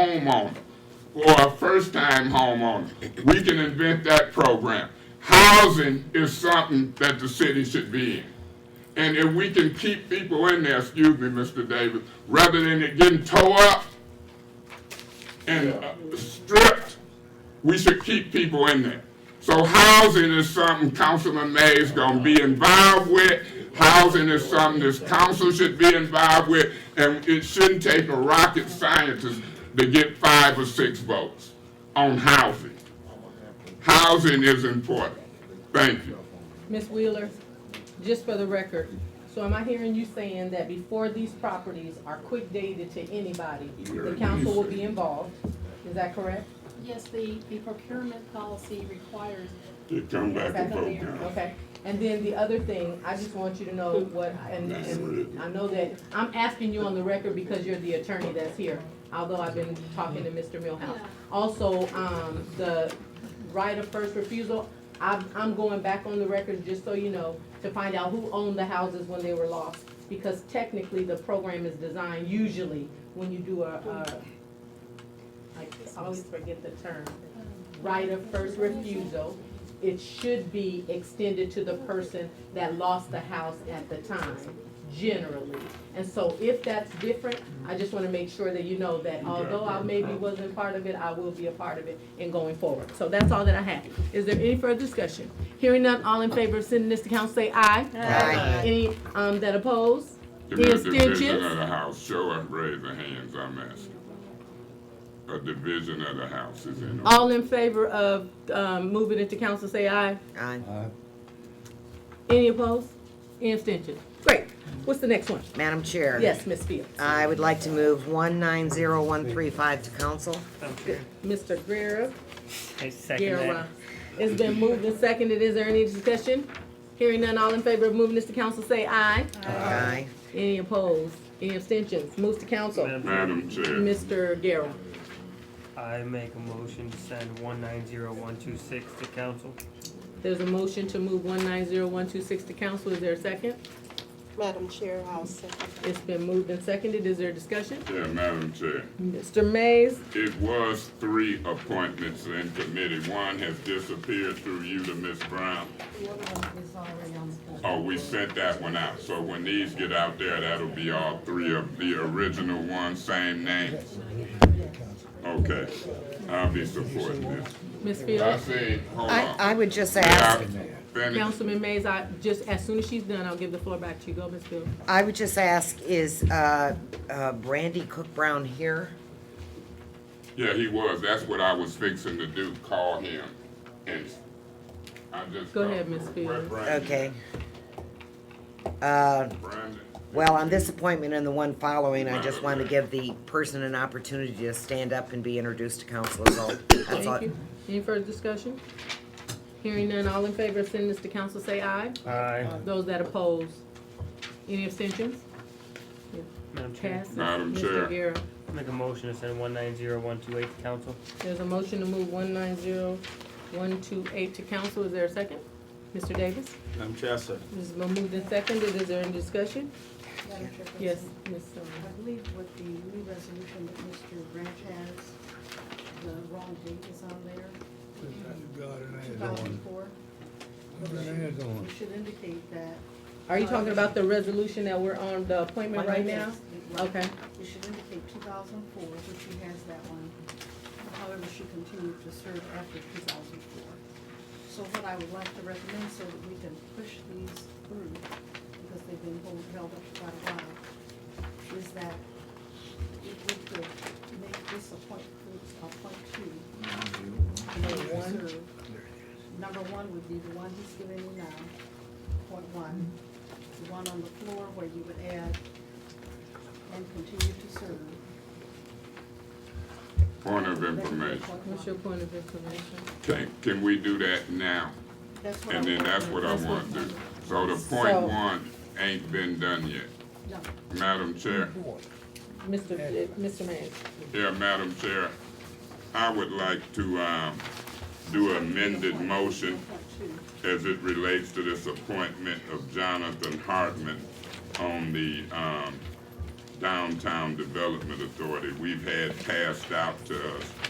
homeowner or a first-time homeowner, we can invent that program. Housing is something that the city should be in. And if we can keep people in there, excuse me, Mr. Davis, rather than it getting tore up and uh, stripped, we should keep people in there. So housing is something Councilman May's gonna be involved with. Housing is something this council should be involved with, and it shouldn't take a rocket scientist to get five or six votes on housing. Housing is important. Thank you. Ms. Wheeler, just for the record, so am I hearing you saying that before these properties are quick dated to anybody, the council will be involved? Is that correct? Yes, the, the procurement policy requires it. You come back and vote now. Okay, and then the other thing, I just want you to know what, and, and I know that, I'm asking you on the record because you're the attorney that's here, although I've been talking to Mr. Millhouse. Also, um, the right of first refusal, I'm, I'm going back on the record, just so you know, to find out who owned the houses when they were lost. Because technically, the program is designed usually when you do a, a, I always forget the term, right of first refusal, it should be extended to the person that lost the house at the time, generally. And so if that's different, I just wanna make sure that you know that although I maybe wasn't part of it, I will be a part of it in going forward. So that's all that I have. Is there any further discussion? Hearing none, all in favor of sending this to council, say aye. Aye. Any, um, that oppose? If Any there's a division abstentions? of the house, show and raise the hands, I'm asking. A division of the house is in order. All in favor of, um, moving it to council, say aye. Aye. Any opposed? Any abstentions? Great. What's the next one? Madam Chair. Yes, Ms. Fields. I would like to move one nine zero one three five to council. Mr. Guerra, I second Guerra. that. It's been moved and seconded. Is there any discussion? Hearing none, all in favor of moving this to council, say aye. Uh, Aye. Any opposed? Any abstentions? Moves to council. Madam Chair, Madam Chair, Mr. Guerra. I make a motion to send one nine zero one two six to council. There's a motion to move one nine zero one two six to council. Is there a second? Madam Chair, I'll second. It's been moved and seconded. Is there a discussion? yeah, Madam Chair. Mr. Mays, It was three appointments in committee. One has disappeared through you to Ms. Brown. Oh, we sent that one out. So when these get out there, that'll be all three of the original ones, same names. Okay, I'll be supporting this. Ms. I Fields, see, hold I, on. I would just May I ask, finish? Councilman Mays, I, just as soon as she's done, I'll give the floor back to you. Go, Ms. Fields. I would just ask, is, uh, uh, Brandy Cook Brown here? Yeah, he was. That's what I was fixing to do, call him. And I just. Go ahead, Ms. Fields. Okay. Uh, Brandon, well, on this appointment and the one following, I just wanted to give the person an opportunity to stand up and be introduced to council as well. That's all. Thank you. Any further discussion? Hearing none, all in favor of sending this to council, say aye. Aye. Those that oppose, any abstentions? Madam Chair, Passes. Madam Mr. Chair. Guerra. make a motion to send one nine zero one two eight to council. There's a motion to move one nine zero one two eight to council. Is there a second? Mr. Davis? Madam Chair, sir. This has been moved and seconded. Is there any discussion? Madam Chairperson? Yes, um, Ms. I Sullivan. believe with the new resolution that Mr. Branch has, the wrong date is on there, two thousand four. You should indicate that. Are you talking about the resolution that we're on, the appointment right now? Yes, it- Okay, You should indicate two thousand four, which she has that one. However, she continued to serve after two thousand four. So what I would like to recommend, so that we can push these through, because they've been hold- held up for quite a while, is that if we could make this a point, a point two. Number one, number one would be the one he's giving you now, point one. The one on the floor where you would add and continue to serve. Point of That would be information. point what's your one. point of information? Can, can we do that now? That's what I And then want. that's what I want to do. So the point So- one ain't been done yet. No, Madam Chair, Mr. J- Mr. Mays, yeah, Madam Chair, I would like to, um, do an amended motion point two. as it relates to this appointment of Jonathan Hartman on the, um, Downtown Development Authority. We've had passed out to us